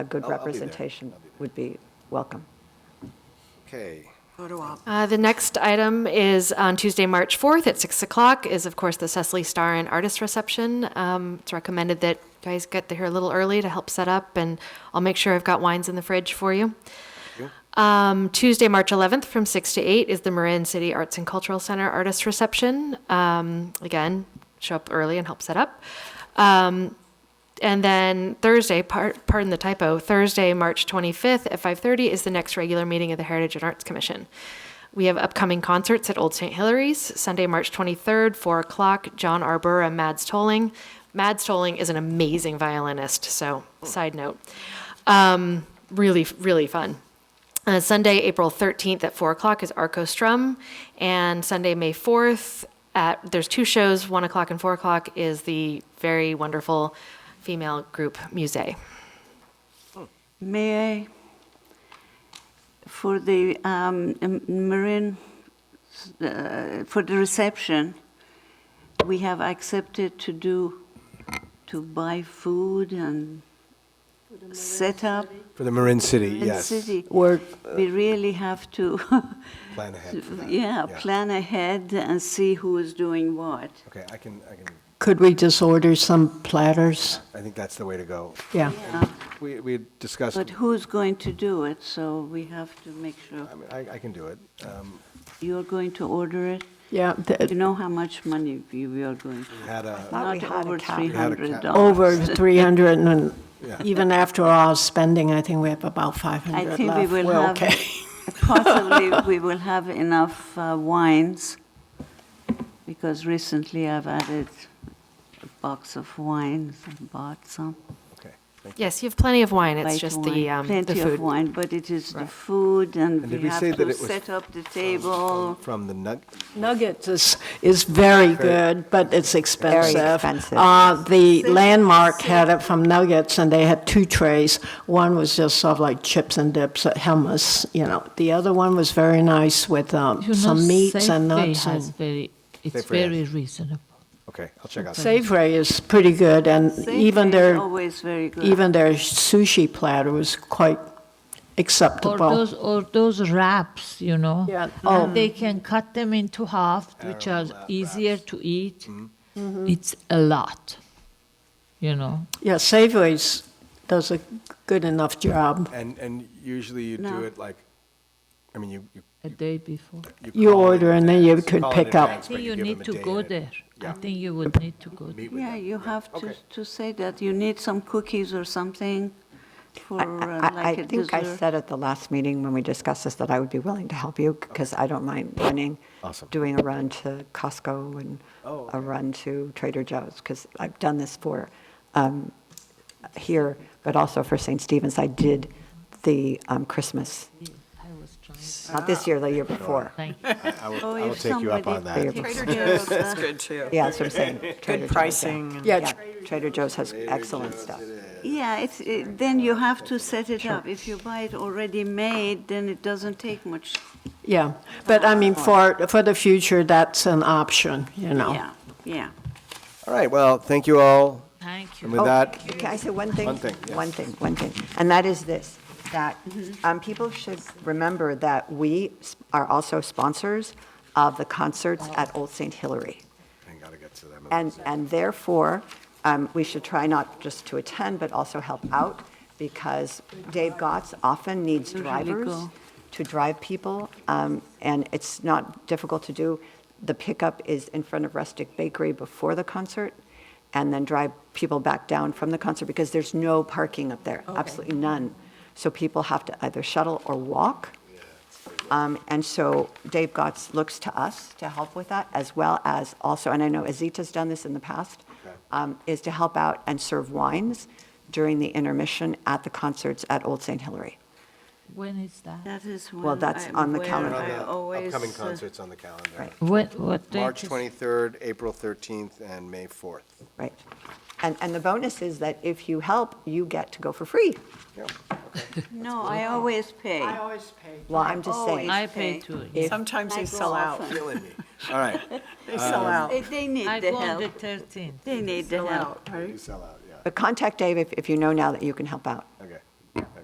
a good I'll- I'll be there. representation I'll be there. would be welcome. Okay. Uh, The next item is on Tuesday, March 4th at 6 o'clock, is of course the Cecily Star and Artist Reception. Um, It's recommended that you guys get there a little early to help set up, and I'll make sure I've got wines in the fridge for you. Um, Tuesday, March 11th from 6 to 8 is the Marin City Arts and Cultural Center Artist Reception. Um, Again, show up early and help set up. Um, and then Thursday, par- pardon the typo, Thursday, March 25th at 5:30 is the next regular meeting of the Heritage and Arts Commission. We have upcoming concerts at Old St. Hilary's, Sunday, March 23rd, 4 o'clock, John Arbor and Mads Tolling. Mads Tolling is an amazing violinist, so side note. Um, really, really fun. Uh, Sunday, April 13th at 4 o'clock is Arco Strum, and Sunday, May 4th, at, there's two shows, 1 o'clock and 4 o'clock, is the very wonderful female group Musée. May I, for the um, m- marine, uh, for the reception, we have accepted to do, to buy food and set up For the Marin City, in yes. city. Word. We really have to, Plan ahead for that. yeah, plan ahead and see who is doing what. Okay, I can, I can, Could we just order some platters? I think that's the way to go. Yeah. We, we had discussed, Uh, But who's going to do it, so we have to make sure. I mean, I, I can do it. Um, You're going to order it? Yeah, You th- know how much money we we are going to We had a, Thought we Not had a over cap. three had a hundred cap. dollars. over 300, and Yeah. even after all spending, I think we have about 500 I left. think we will We're have, okay. possibly, we will have enough uh, wines, because recently I've added a box of wines and bought some. okay. thank you. Yes, you have plenty of wine, it's white just wine, the, um, the Plenty of food. wine, but it is the food, and And did we we have say that to it was set up the table. From the nug, Nuggets is, is very good, but it's expensive. expensive. Uh, The Landmark had it from Nuggets, and they had two trays. One was just sort of like chips and dips, uh, hummus, you know. The other one was very nice with um, You know, some meats and Safeway nuts. has and- very, it's Safeway has- very reasonable. okay, I'll check out. Safeway is pretty good, and Safeway even is their Always very good. even their sushi platter was quite Or acceptable. those, or those wraps, you know. Yeah. Oh. They can cut them into half, which are easier to eat. Mm-hmm. Mm-hmm. It's a lot, you know. Yeah, Safeways does a good enough job. And, and usually you do No. it like, I mean, you, you. A day before. You call in order and then you advance. could Call in pick up. I advance, think but you give need them a to day go and there. I Yeah. think you would need to go there. meet with Yeah, them. you have to, Okay. to say that you need some cookies or something for I- uh, I- I like I a think I dessert. said at the last meeting when we discussed this that I would be willing to help you because I don't mind running, Awesome. doing a run to Costco and Oh, a run to Trader Joe's because I've done this for um, here, but also for St. Stephen's. I did the um, Christmas, I was trying. not this year, the year before. Thank you. I I will, Oh, I will if take you up somebody on that. takes Trader Joe's is good too. Yeah, that's what I'm saying. Good Trader Joe's, yeah. pricing. and- Yeah, Yeah, Trader Joe's has excellent stuff. Yeah, it's, it- then you have to set it up. If you buy it already made, then it doesn't take much. yeah. But I mean, for, for the future, that's an option, you know. Yeah, yeah. All right, well, thank you all. Thank you. And with Oh, that, Can I say one thing? One thing, yes. One thing, one thing, and that is this, that um, people should remember that we s- are also sponsors of the concerts at Old St. Hilary. I gotta get to them. And, and therefore, um, we should try not just to attend, but also help out, because Dave Gotts often needs Usually drivers go. to drive people, um, and it's not difficult to do. The pickup is in front of Rustic Bakery before the concert, and then drive people back down from the concert, because there's no parking up there, absolutely none. So people have to either shuttle or walk. Um, And so Dave Gotts looks to us to help with that, as well as also, and I know Azita's done this in the past, um, is to help out and serve wines during the intermission at the concerts at Old St. Hilary. When is that? That is Well, one that's I- on the where calendar. I always, Upcoming uh, concerts on the calendar. Right. When, what date? March is- 23rd, April 13th, and May 4th. Right. And, and the bonus is that if you help, you get to go for free. No, I always pay. always pay. Well, I'm just saying. Always. I pay too. Sometimes I they go sell out. often. Killing me. All right. They sell out. They- They need I the go on the help. thirteenth. They need the Sell help. out, right? You sell out, yeah. But contact Dave if, if you know now that you can help out.